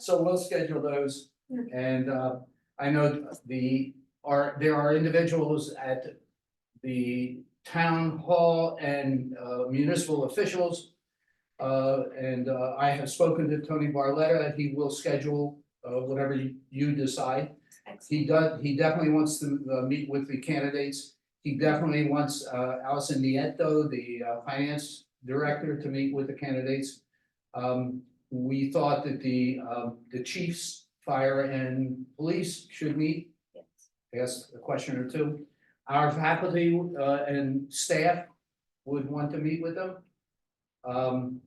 So we'll schedule those Yeah. and uh, I know the, are, there are individuals at the town hall and uh, municipal officials. Uh, and uh, I have spoken to Tony Barletta, he will schedule uh, whatever you- you decide. He does, he definitely wants to uh, meet with the candidates. He definitely wants uh, Allison Nieto, the uh, finance director, to meet with the candidates. Um, we thought that the, um, the chiefs, fire and police should meet, I guess, a question or two. Our faculty, uh, and staff would want to meet with them. Um,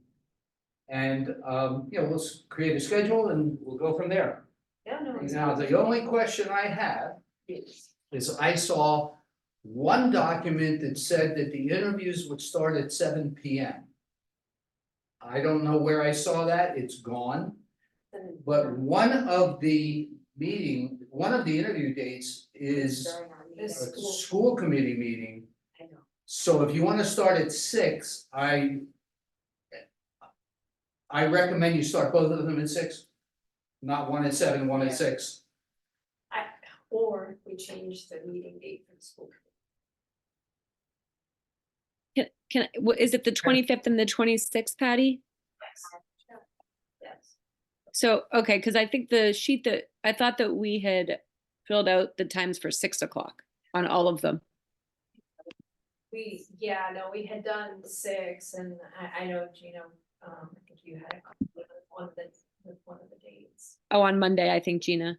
and, um, you know, let's create a schedule and we'll go from there. Yeah, no. it's- Now, the only question I have is I saw one document that said that the interviews would start at seven P M. I don't know where I saw that, it's gone. But one of the meeting, one of the interview dates is During our a meeting. This- School. school committee meeting. I know. So if you wanna start at six, I. I recommend you start both of them at six, not one at seven, one at Yeah. six. Or we change the meeting date for the school. Can, can, wha- is it the twenty-fifth and the twenty-sixth, Patty? Yes. Yes. So, okay, because I think the sheet that, I thought that we had filled out the times for six o'clock on all of them. We, yeah, no, we had done six and I, I know Gino, um, I think you had a conflict with one of the, with one of the dates. Oh, on Monday, I think, Gina.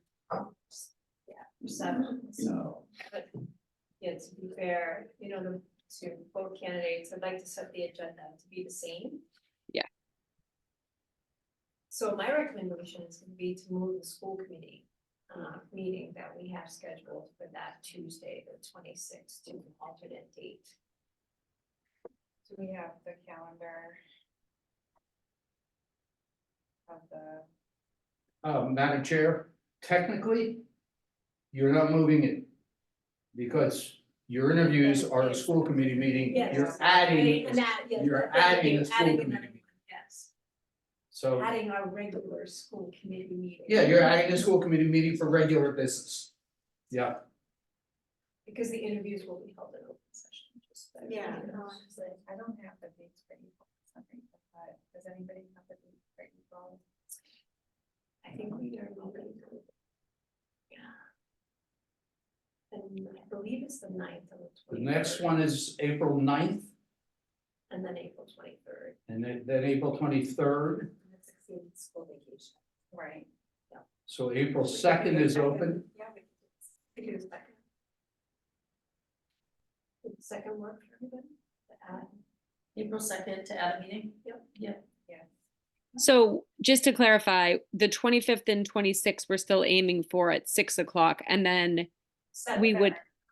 Seven, so, No. but, yeah, to be fair, you know, the, to both candidates, I'd like to set the agenda to be the same. Yeah. So my recommendation is gonna be to move the school committee, uh, meeting that we have scheduled for that Tuesday, the twenty-sixth, to an alternate date. Do we have the calendar? Of the, Uh, Madam Chair, technically, you're not moving it. Because your interviews are a school committee meeting, you're Yes. adding, And that, yes, you're that's what I adding mean, a school adding committee. another one, Yes, so, adding our regular school committee meeting. yeah, you're adding a school committee meeting for regular business. Yeah, Because the interviews will be held in open session, just. so yeah, everybody no, knows. honestly, I don't have the dates for April, I think, uh, but does anybody have the dates for April? I think we are moving. Yeah. And I believe it's the ninth and the the twenty. next one is April 9th, And then April twenty-third, and then, then April twenty-third, and the sixteenth school vacation. Right. so April second is open. Yeah, we can do this. We could do the second. Did the second work for everybody? The ad? April second to add a meeting? Yep. Yep. So just to clarify, the twenty-fifth and twenty-sixth, we're still aiming for at six o'clock and then Seven we for would, both.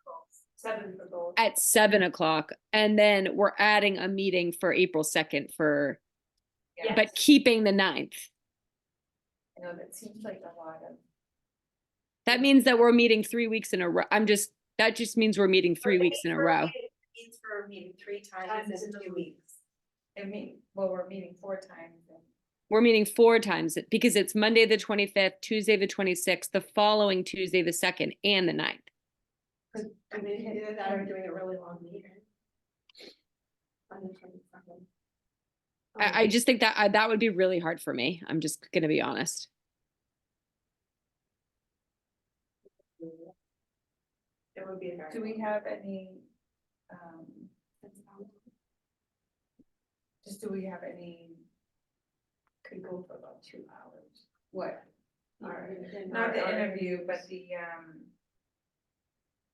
Seven for both. at seven o'clock. And then we're adding a meeting for April second for, Yeah. but keeping the ninth. I know that seems like a lot of, That means that we're meeting three weeks in a row. I'm just, that just means we're meeting three weeks in a row. Means for meeting three Times in two weeks. I mean, well, we're meeting four times and. We're meeting four times because it's Monday, the twenty-fifth, Tuesday, the twenty-sixth, the following Tuesday, the second, and the ninth. I mean, either that or doing a really long meeting. On the twenty-second. I, I just think that, I, that would be really hard for me. I'm just gonna be honest. It would be a very. Do we have any, um, just do we have any, Could go for about two hours. what, Or- not the or- interview, but the, um,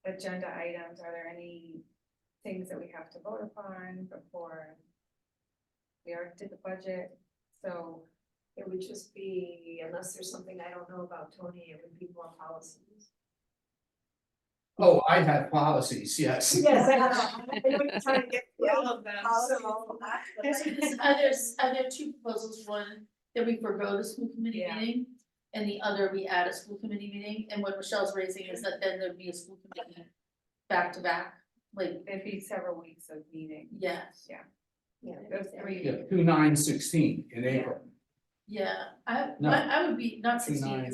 agenda items, are there any things that we have to vote upon before? We already did the budget, so, It would just be, unless there's something I don't know about Tony, it would be more policies. Oh, I have policies, yes. Yes, I know. Trying to get all of them. so- Others, are there two proposals, one that we forego the school committee Yeah. meeting? And the other, we add a school committee meeting, and what Michelle's raising is that then there'd be a school committee back to back, like, it'd be several weeks of meeting. yes. Those three. Yeah, two nine sixteen in April. Yeah, I, No. I, I would be, not sixteen, 'cause Nine.